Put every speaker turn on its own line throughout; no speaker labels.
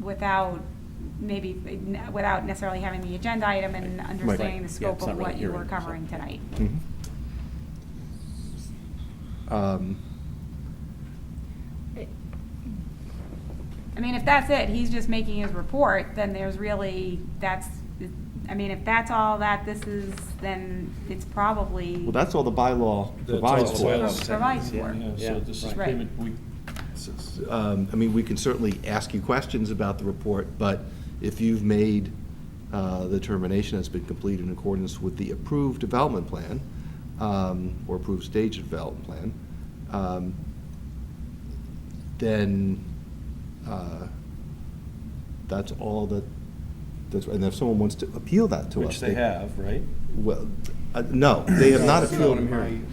without maybe, without necessarily having the agenda item and understanding the
Yeah,
scope
it's not
of what
really
you were
hearing, so-
covering tonight.
Mhm. Um,
I mean, if that's it, he's just making his report, then there's really, that's, I mean, if that's all that this is, then it's probably.
Well, that's all the bylaw
That's
provides
all
for.
bylaw
Pro- Provides for.
Yeah, so
Yeah,
this is
right.
payment, we,
Um, I mean, we can certainly ask you questions about the report, but if you've made uh, the determination that's been completed in accordance with the approved development plan, um, or approved stage development plan, um, then uh, that's all that, that's, and if someone wants to appeal that to us.
which they have, right?
Well, uh, no, they have not
That's
appealed.
what I'm hearing.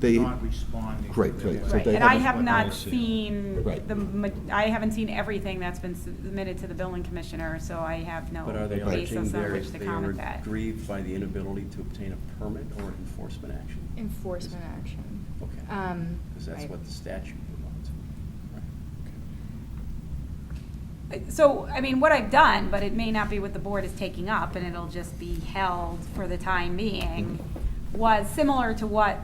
They-
Not responding.
Great, great. So
Right,
they
and I
haven't-
have not
see.
seen
Right.
the, ma- I haven't seen everything that's been submitted to the building commissioner, so I have no
But are they
Right.
alleging
basis on
they're,
which to
they are
comment that.
grieved by the inability to obtain a permit or enforcement action?
Enforcement action.
Okay.
Um,
Because that's
right.
what the statute provides. Right, okay.
So, I mean, what I've done, but it may not be what the board is taking up, and it'll just be held for the time being,
Mm-hmm.
was similar to what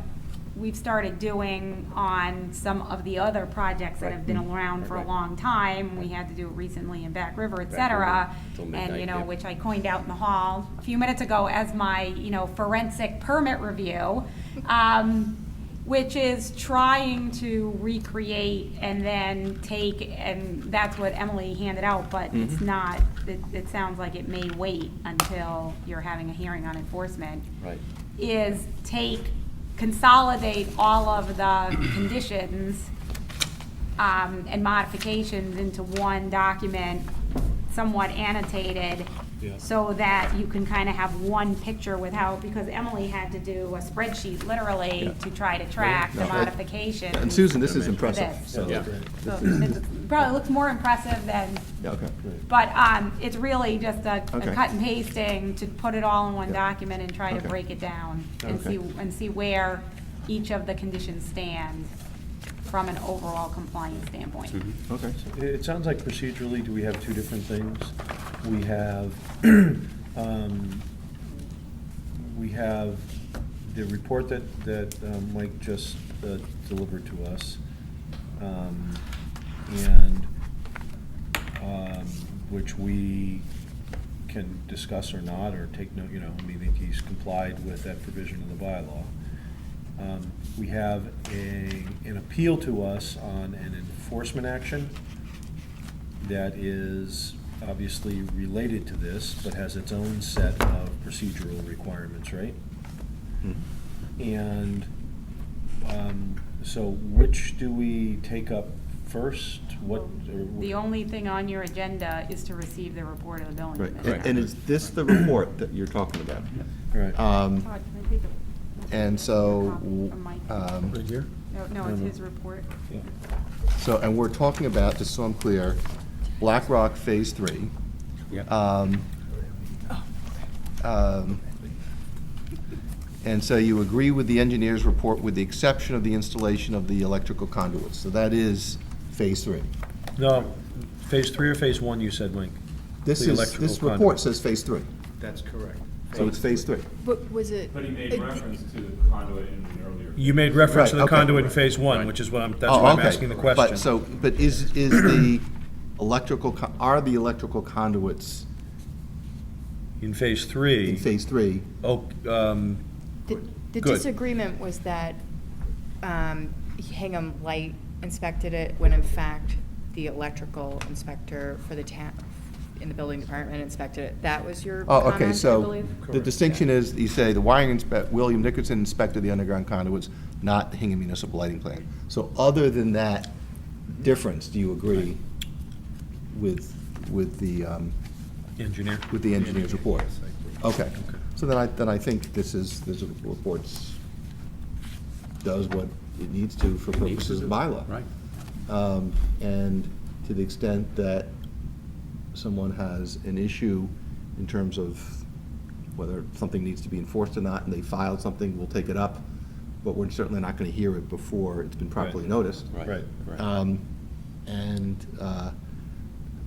we've started doing on some of the other projects that have been
Right.
around for a
Right. Mm-hmm.
long time. We had to do it recently in Back River, et
Back
cetera.
River, till
And, you
midnight,
know,
yeah.
which I coined out in the hall a few minutes ago as my, you know, forensic permit review. Um, which is trying to recreate and then take, and that's what Emily handed out, but it's
Mhm.
not, it, it sounds like it may wait until you're having a hearing on enforcement.
Right.
Is take, consolidate all of the conditions, um, and modifications into one document, somewhat annotated,
Yeah.
so that you can kind of have one picture with how, because Emily had to do a spreadsheet literally to try to track the
No, I-
modifications.
And Susan, this is impressive,
This.
so.
Yeah.
So it's- Probably looks more impressive than,
Yeah, okay.
but, um, it's really just a, a
Okay.
cut and pasting to put it all in one
Yeah.
document and try to
Okay.
break it down and
Okay.
see, and see where each of the conditions stand from an overall compliance standpoint.
Okay.
It, it sounds like procedurally, do we have two different things? We have, um, we have the report that, that um, Mike just uh, delivered to us. um, And, um, which we can discuss or not, or take note, you know, I mean, I think he's complied with that provision in the bylaw. Um, We have a, an appeal to us on an enforcement action that is obviously related to this, but has its own set of procedural requirements, right? And um, so which do we take up first? What? uh, or wh-
The only thing on your agenda is to receive the report of the building
Right,
commissioner.
and and is this the report that you're talking about?
Right.
Um,
Todd, can I take a-
And
a
so,
copy from Mike?
um,
No, no, it's his report.
Yeah.
so, and we're talking about, just so I'm clear, Black Rock Phase Three. Um, um, And so you agree with the engineer's report with the exception of the installation of the electrical conduits. So that is Phase Three.
No, phase three or phase one, you said, Mike?
This
The
is,
electrical
this
conduit.
report says Phase Three,
That's correct.
so it's Phase Three.
But was it?
But he made
it-
reference to the conduit in an earlier.
You made reference to
Right,
the
okay.
conduit in phase one, which is what I'm, that's
Oh,
why I'm
okay.
asking the question.
But so, but is, is the electrical, co- are the electrical conduits
In phase
in
three,
Phase Three?
oh, um,
The the
Good.
disagreement was that um, Hingham Light inspected it when in fact the electrical inspector for the town, in the building department inspected it. That was your
Oh,
comment, I
okay,
believe?
so the distinction is, you say, the wiring inspect, William Nickerson inspected the underground conduits, not the Hingham Municipal Lighting Plan. So other than that difference, do you agree with, with the, um,
engineer.
with the engineer's report? Okay, so then I, then I think this is, this report's, does what it needs to for purposes of bylaw.
Right.
Um, And to the extent that someone has an issue in terms of whether something needs to be enforced or not, and they filed something, we'll take it up, but we're certainly not going to hear it before it's been properly
Right.
noticed.
Right.
Um, And, uh,